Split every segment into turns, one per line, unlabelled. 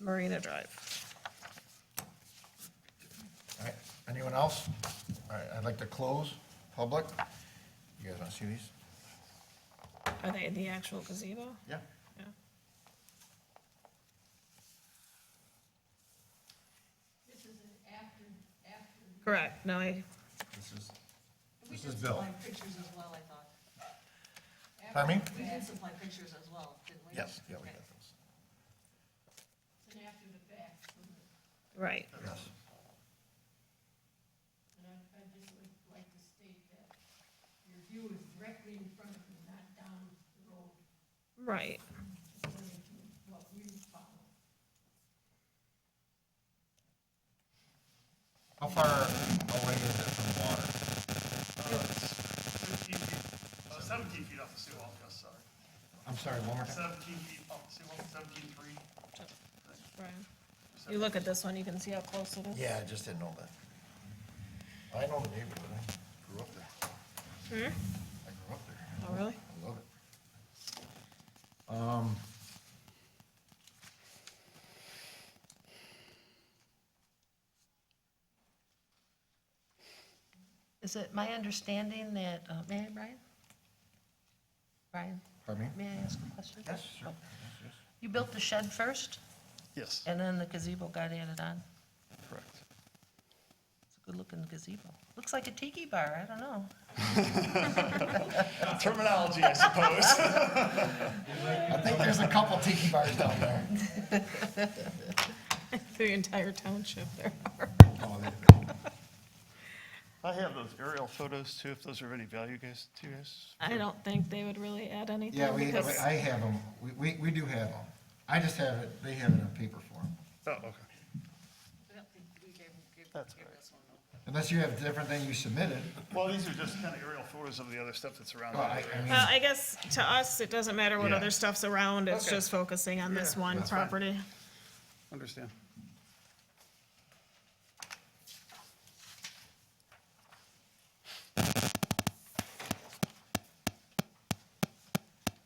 Marina Drive.
All right, anyone else? All right, I'd like to close public. You guys want to see these?
Are they in the actual gazebo?
Yeah.
Yeah.
This is an after, after.
Correct, no, I,
This is,
We
This
did
is Bill.
supply pictures as well, I thought.
Pardon me?
We did supply pictures as well, didn't we?
yes, yeah, we
Okay.
got those.
It's an after the fact, wasn't it?
right,
Yes.
And I, I just would like to state that your view is directly in front of you, not down the road,
right.
according to what we follow.
How far away is it from water?
Fifteen feet, uh, seventeen feet off the seawall, yes, sorry.
I'm sorry, one more time.
Seventeen feet off the seawall, seventeen three.
Brian. You look at this one, you can see how close it is.
Yeah, I just didn't know that. I know the neighborhood, I grew up there. I grew up there.
Oh, really?
I love it. Um,
Is it my understanding that, uh, may I, Brian? Brian,
Pardon me?
may I ask a question? Oh,
Yes, sure. Yes,
You built the shed first,
Yes,
and then the gazebo got added on?
correct.
It's a good-looking gazebo. Looks like a tiki bar, I don't know.
Terminology, I suppose.
yes. I think there's a couple tiki bars down there.
The entire township there.
Oh, there-
I have those aerial photos too, if those are of any value, guys, to you guys.
I don't think they would really add anything.
Yeah, we, we-
because-
I have them, we, we, we do have them. I just have it, they have it in paper form.
Oh, okay.
I don't think we gave, gave,
That's
gave
all right.
this one, though.
Unless you have a different thing you submitted,
Well, these are just kind of aerial photos of the other stuff that's around.
well, I,
it.
I mean,
Well, Uh, I guess to us, it doesn't matter what
Yeah.
other stuff's around, it's
Okay.
just focusing on this
Yeah,
one
that's fine.
property.
Understand.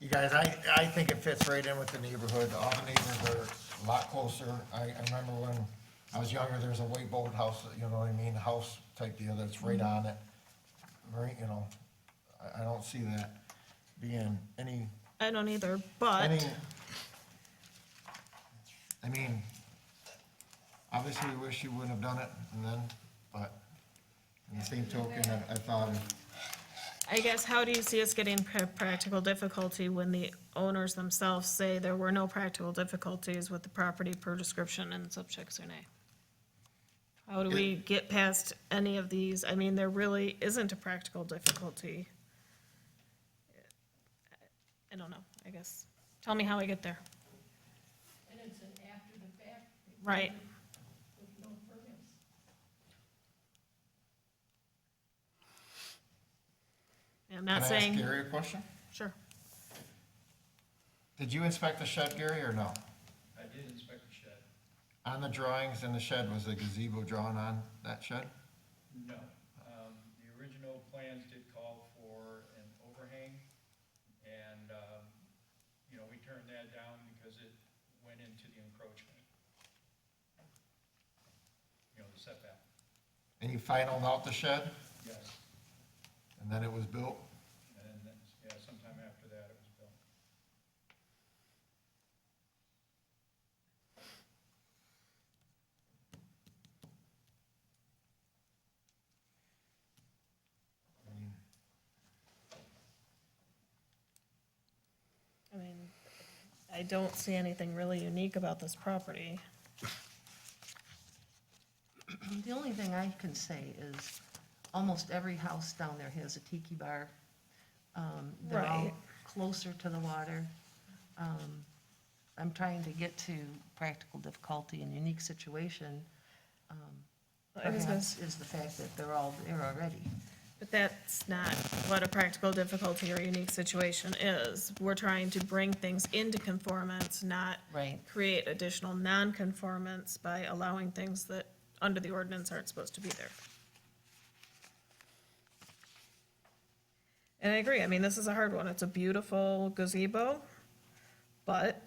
you guys, I, I think it fits right in with the neighborhood. All the neighbors are a lot closer. I, I remember when I was younger, there was a white boat house, you know what I mean, house type deal that's right on it. Right, you know, I, I don't see that being any,
I don't either, but.
any. I mean, obviously, we wish you wouldn't have done it and then, but in the same token, I, I thought if
I guess, how do you see us getting pra- practical difficulty when the owners themselves say there were no practical difficulties with the property per description and subject survey? How do we get past any of these? I mean, there really isn't a practical difficulty. I don't know, I guess. Tell me how I get there.
And it's an after the fact
Right,
with no permits.
I'm
Can
not
I ask
saying,
Gary a question?
sure.
Did you inspect the shed, Gary, or no?
I did inspect the shed.
On the drawings in the shed, was a gazebo drawn on that shed?
No. Um, The original plans did call for an overhang, and, um, you know, we turned that down because it went into the encroachment. You know, the setback.
And you finalled out the shed,
Yes.
and then it was built?
And, that's- yeah, sometime after that, it was built.
I mean, I don't see anything really unique about this property.
The only thing I can say is, almost every house down there has a tiki bar. Um, They're all
Right.
closer to the water. Um, I'm trying to get to practical difficulty and unique situation,
I was gonna
perhaps, is the fact that they're all there already.
But that's not what a practical difficulty or unique situation is. We're trying to bring things into conformance, not
Right.
create additional non-conformance by allowing things that, under the ordinance, aren't supposed to be there. And I agree, I mean, this is a hard one. It's a beautiful gazebo, but